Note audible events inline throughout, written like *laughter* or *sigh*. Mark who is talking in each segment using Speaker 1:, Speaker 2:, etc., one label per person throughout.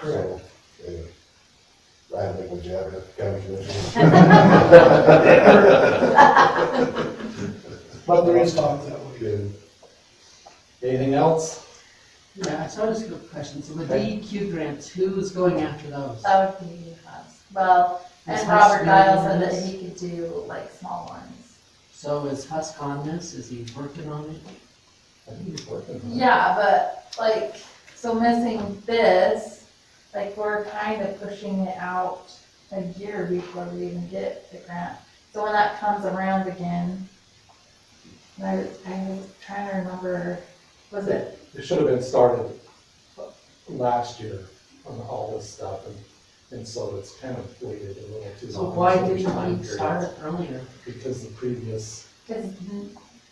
Speaker 1: So, yeah. I don't think we should have a county commission.
Speaker 2: But
Speaker 3: *laughs* But there is talk that way.
Speaker 1: Good.
Speaker 4: Anything else?
Speaker 5: Yeah, so I just have a question. So the DEQ grants, who's going after those?
Speaker 2: That would be, us. well,
Speaker 5: Is
Speaker 2: Uh, and
Speaker 5: Husk
Speaker 2: Robert Dial said
Speaker 5: doing
Speaker 2: that
Speaker 5: this?
Speaker 2: he could do like small ones.
Speaker 5: So is Husk on this? Is he working on it?
Speaker 4: I think it's working.
Speaker 2: Yeah, but like, so missing this, like, we're kind of pushing it out a year before we even get the grant. So when that comes around again, and I, was- I was trying to remember, was it,
Speaker 4: It should have been started last year on all this stuff, and, and so it's kind of waited a little too long.
Speaker 5: So why
Speaker 4: there's
Speaker 5: didn't
Speaker 4: time
Speaker 5: we
Speaker 4: periods,
Speaker 5: start it earlier?
Speaker 4: Because the previous
Speaker 2: cause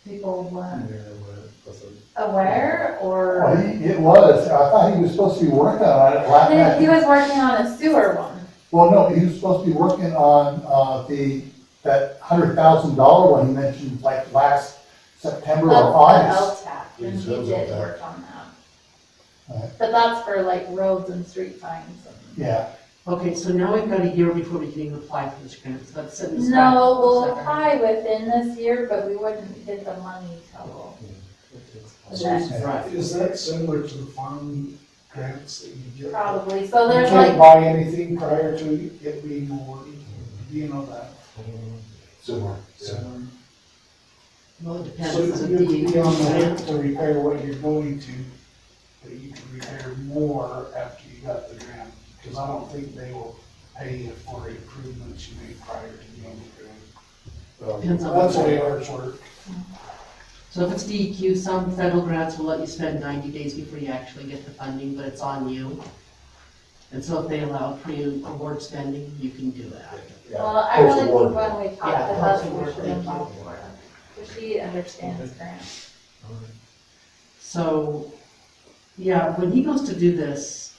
Speaker 2: people weren't
Speaker 4: mayor wa- wasn't,
Speaker 2: aware
Speaker 1: Well,
Speaker 2: or?
Speaker 1: he, it was, I thought he was supposed to be working on it last night.
Speaker 2: He he was working on a sewer one.
Speaker 1: Well, no, he was supposed to be working on, uh, the, that hundred thousand dollar one he mentioned like last September
Speaker 2: That's
Speaker 1: or August.
Speaker 2: the LTAC,
Speaker 1: He
Speaker 2: and he
Speaker 1: says
Speaker 2: did
Speaker 1: LTAC.
Speaker 2: work on
Speaker 1: Right.
Speaker 2: that. But that's for like roads and street signs and.
Speaker 1: Yeah,
Speaker 5: Okay, so now we've got a year before we can even apply for this grant, so that's setting us back.
Speaker 2: No, we'll
Speaker 5: Is that
Speaker 2: apply within this year, but we wouldn't get the money till.
Speaker 4: it takes-
Speaker 5: right? Right.
Speaker 3: Is that similar to the farm grants that you get?
Speaker 2: Probably, so
Speaker 3: You
Speaker 2: there's
Speaker 3: can't
Speaker 2: like,
Speaker 3: buy anything prior to it being awarded, you know that.
Speaker 1: similar.
Speaker 3: So,
Speaker 5: Well, it depends.
Speaker 3: so
Speaker 5: Is it E
Speaker 3: you could be on the hook
Speaker 5: DEQ
Speaker 3: to repair what you're going to, but you can repair more after you got the grant. Because I don't think they will pay you for improvements you made prior to getting the grant.
Speaker 5: grant? Depends on.
Speaker 3: That's the way ours work.
Speaker 5: So if it's DEQ, some federal grants will let you spend ninety days before you actually get the funding, but it's on you. And so if they allow pre-award spending, you can do that.
Speaker 2: well, I really think when we talk to
Speaker 5: Yeah,
Speaker 2: Hudson,
Speaker 5: post-award,
Speaker 2: we should
Speaker 5: thank you.
Speaker 2: involve Florida. Because she understands grants.
Speaker 5: So, yeah, when he goes to do this,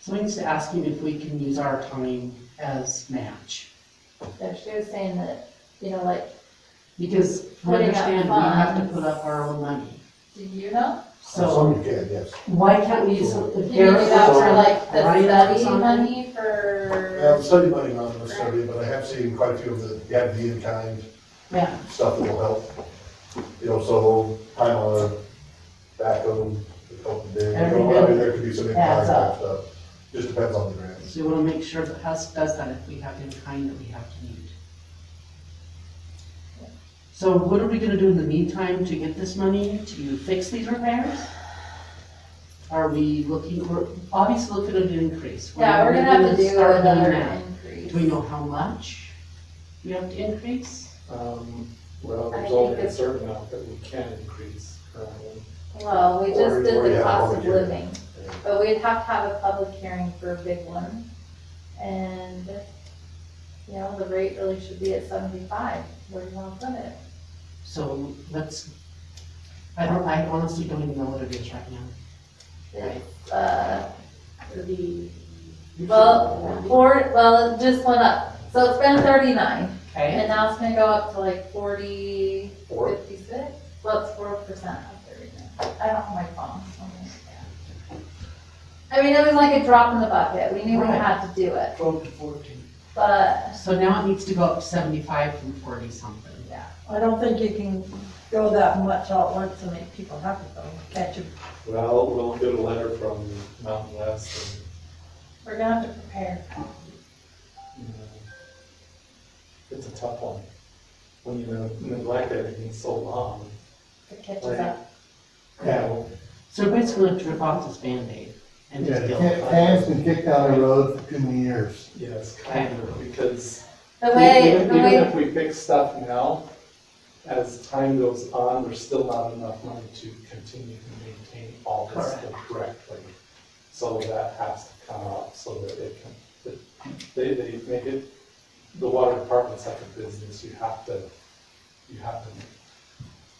Speaker 5: somebody needs to ask him if we can use our time as match.
Speaker 2: So she was saying that, you know, like,
Speaker 5: Because from what I understand, we have to put up our own money.
Speaker 2: do you know?
Speaker 5: So
Speaker 1: Some you can, yes.
Speaker 5: why can't we use, if
Speaker 2: Can you do
Speaker 5: Garrett
Speaker 2: that
Speaker 5: works
Speaker 2: for
Speaker 5: on
Speaker 2: like the
Speaker 5: Ryan or
Speaker 2: study
Speaker 5: something,
Speaker 2: money
Speaker 1: Yeah, the
Speaker 2: for,
Speaker 1: study money not in the study, but I have seen quite a few of the, yeah, the in-kind
Speaker 5: Yeah,
Speaker 1: stuff that will help. You know, so time on a back of a couple of days.
Speaker 5: Every
Speaker 1: I mean,
Speaker 5: bit
Speaker 1: there could be some in-kind
Speaker 5: adds
Speaker 1: type
Speaker 5: up.
Speaker 1: stuff. Just depends on the grants.
Speaker 5: so we wanna make sure that Husk does that if we have in kind that we have to need. So what are we gonna do in the meantime to get this money to fix these repairs? Are we looking, we're obviously looking at an increase.
Speaker 2: yeah, we're gonna have to do
Speaker 5: start doing
Speaker 2: another
Speaker 5: that.
Speaker 2: increase.
Speaker 5: Do we know how much we have to increase?
Speaker 4: Um, well,
Speaker 2: I
Speaker 4: there's
Speaker 2: think
Speaker 4: only a
Speaker 2: it's-
Speaker 4: certain amount that we can increase um, currently.
Speaker 2: Well, we
Speaker 1: Or-
Speaker 2: just
Speaker 1: or
Speaker 2: did
Speaker 1: you
Speaker 2: the
Speaker 1: have a
Speaker 2: cost
Speaker 1: public
Speaker 2: of
Speaker 1: hearing.
Speaker 2: living,
Speaker 1: Yeah.
Speaker 2: but we'd have to have a public hearing for a big one. And, you know, the rate really should be at seventy-five, where do you wanna put it?
Speaker 5: So let's, I don't, I honestly don't even know what it is right now.
Speaker 2: It's, uh, the, well,
Speaker 5: Well.
Speaker 2: four, well, it just went up, so it's been thirty-nine,
Speaker 5: Okay,
Speaker 2: and now it's gonna go up to like forty,
Speaker 4: Four.
Speaker 2: fifty-six? Well, it's four percent of thirty-nine, I don't have my phone, so I'm gonna- I mean, it was like a drop in the bucket, we knew we
Speaker 5: Right.
Speaker 2: had to do it,
Speaker 3: Twelve to fourteen.
Speaker 2: but
Speaker 5: so now it needs to go up to seventy-five from forty something.
Speaker 6: I don't think you can go that much all at once and make people happy though, can't you?
Speaker 4: Well, we'll get a letter from Mountain West
Speaker 2: We're gonna have to prepare.
Speaker 4: and, you know, it's a tough one. When you neglect everything so long,
Speaker 2: The catch
Speaker 4: Right.
Speaker 2: us up.
Speaker 4: you know,
Speaker 5: So everybody's gonna rip off this Band-Aid and just
Speaker 4: Yeah,
Speaker 5: deal
Speaker 1: Can-
Speaker 5: with
Speaker 1: Can's
Speaker 5: it.
Speaker 1: been kicked down the road for too many years.
Speaker 4: yes, kind of, because
Speaker 2: The way,
Speaker 4: even
Speaker 2: the
Speaker 4: even
Speaker 2: way,
Speaker 4: if we fix stuff now, as time goes on, there's still not enough money to continue to maintain all this stuff correctly. So that has to come up so that it can, that they, they make it, the water department's like a business, you have to, you have to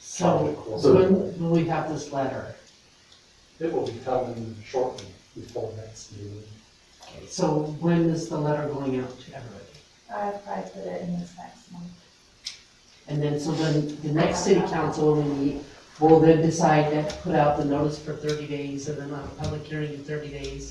Speaker 5: So, so when will we have this letter?
Speaker 4: It will be coming shortly before next meeting.
Speaker 5: Okay, So when is the letter going out to everybody?
Speaker 2: I probably put it in this next month.
Speaker 5: And then, so then the next city council will meet, will then decide to put out the notice for thirty days and then have a public hearing in thirty days.